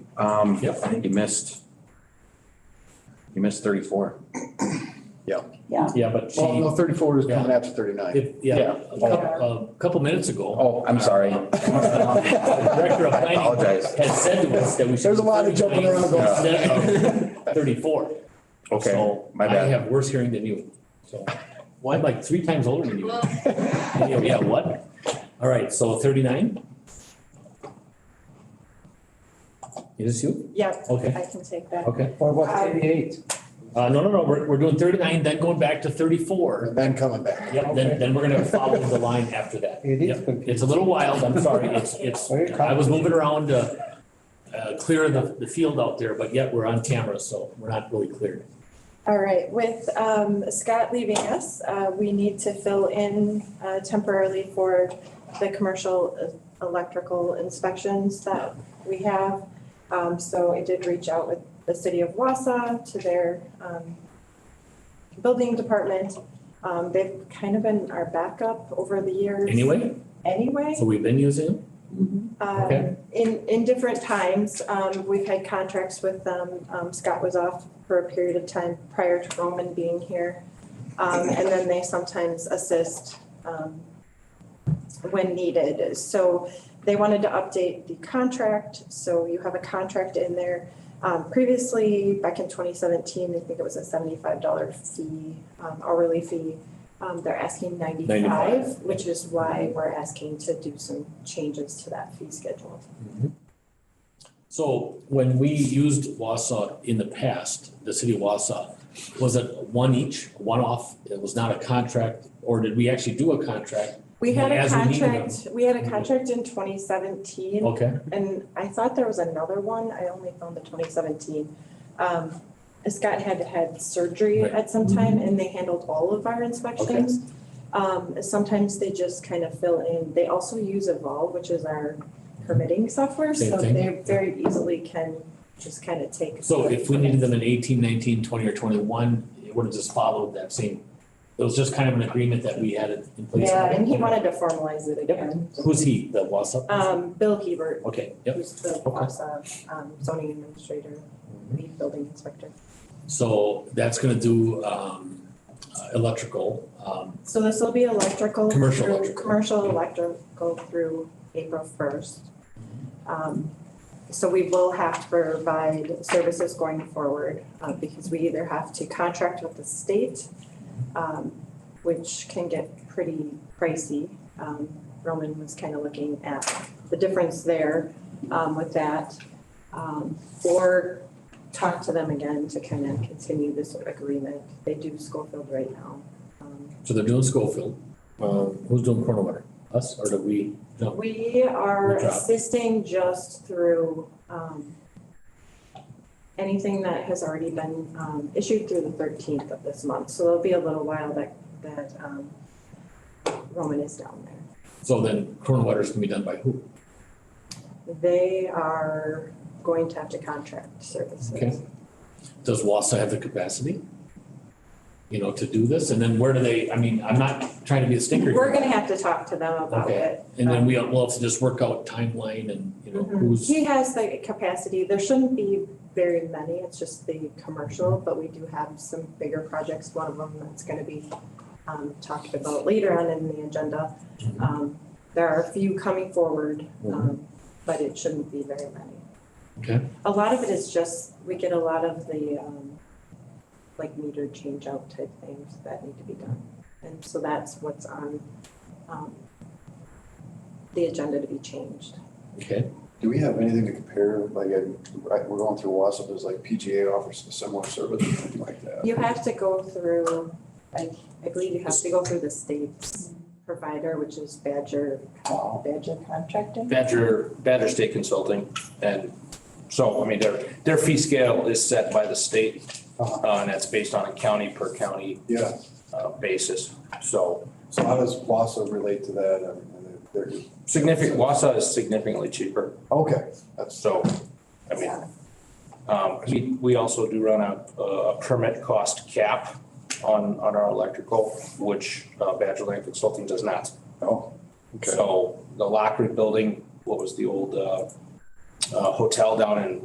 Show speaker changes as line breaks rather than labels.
Um, I
Yep.
think you missed. You missed thirty-four.
Yeah, but
Well,
she,
no, thirty-four is coming
Yeah.
after thirty-nine.
if- yeah, a couple, a couple minutes ago,
Oh, I'm sorry.
the director of
I
planning
apologize.
had said to us that we should.
There's a lot of jumping around going on.
going. Thirty-four.
Okay,
So
my
I
bad.
have worse hearing than you, so. Well, I'm like three times older than you.
Well,
Yeah, yeah, what? All right, so thirty-nine? It is you?
Yeah,
Okay,
I can take that.
okay.
Or what, thirty-eight?
Uh, no, no, no, we're, we're doing thirty-nine, then going back to thirty-four.
And then coming back.
Yep, then, then we're gonna follow the line after that.
It
Yep.
is confusing.
It's a little wild, I'm sorry, it's, it's,
Very
I was moving around to uh, clear the, the field out there, but yet we're on camera, so we're not really cleared.
All right, with um, Scott leaving us, uh, we need to fill in uh, temporarily for the commercial uh, electrical inspections that we have. Um, So I did reach out with the city of Wausau to their um, building department. Um, They've kind of been our backup over the years
Anyway,
anyway.
so we've been using them.
um,
Okay.
In, in different times, um, we've had contracts with them. Um, Scott was off for a period of time prior to Roman being here. Um, and then they sometimes assist, um, when needed. So they wanted to update the contract, so you have a contract in there. Um, previously, back in twenty seventeen, I think it was a seventy-five dollar fee, um, hourly fee. Um, they're asking ninety-five,
95.
which is why we're asking to do some changes to that fee schedule.
So when we used Wausau in the past, the city of Wausau, was it one each, one off? It was not a contract, or did we actually do a contract?
We had a
As we needed
contract, we had a
Mhm.
contract in twenty seventeen,
Okay,
and I thought there was another one, I only found the twenty seventeen. Um, Scott had had surgery
Right. Mm-hmm.
at some time, and they handled all of our inspections. Um, sometimes they just kind of fill in, they also use Evolve, which is our permitting software,
Same
so
thing.
they very easily can just kind of take.
so if we needed them in 18, 19, 20, or twenty-one, it would have just followed that same, it was just kind of an agreement that we had it in place.
Yeah, and he wanted to formalize it again.
Who's he, the Wausau?
Um, Bill Hebert
Okay, yep.
who's the boss of um, zoning administrator, lead building inspector.
So that's gonna do, um, uh, electrical, um,
So this will be electrical.
Commercial
through-
electrical.
Commercial electrical through April first. Um, so we will have to provide services going forward, uh, because we either have to contract with the state, um, which can get pretty pricey. Um, Roman was kind of looking at the difference there, um, with that. Um, or talk to them again to kind of continue this agreement. They do Schofield right now. Um,
so they're doing Schofield. Um, who's doing Corona Water? Us, or do we? No.
We are
Good job.
assisting just through, um, anything that has already been, um, issued through the thirteenth of this month, so there'll be a little while that, that, um, Roman is down there.
So then Corona Water's gonna be done by who?
They are going to have to contract services.
Okay. does Wassa have the capacity? You know, to do this, and then where do they, I mean, I'm not trying to be a stinker
We're
here,
gonna have to talk to them about
Okay.
it.
and then we, we'll have to just work out timeline and, you know, who's,
Mm-hmm. He has the capacity, there shouldn't be very many, it's just the commercial, but we do have some bigger projects, one of them that's gonna be um talked about later on in the agenda.
Mhm.
Um there are a few coming forward, um but it shouldn't be very many.
Mm-hmm. Okay.
A lot of it is just, we get a lot of the um like meter change out type things that need to be done. And so that's what's on um the agenda to be changed.
okay,
Do we have anything to compare, like, uh, right, we're going through WASA, there's like PGA offers a similar service, or something like that.
You have to go through, like, I believe you have to go through the state's provider, which is Badger, uh, Badger Contracting.
Badger, Badger State Consulting. And so, I mean, their, their fee scale is set by the state,
Uh-huh.
uh, and that's based on a county per county,
Yeah,
uh, basis. So
so how does WASA relate to that? I mean, they're- they're-
significant, Wausau is significantly cheaper.
Okay, that's,
So, I mean, Um, we, we also do run a, a permit cost cap on, on our electrical, which uh, Badger Land Consulting does not.
oh, okay.
So the Lockwood Building, what was the old, uh, uh, hotel down in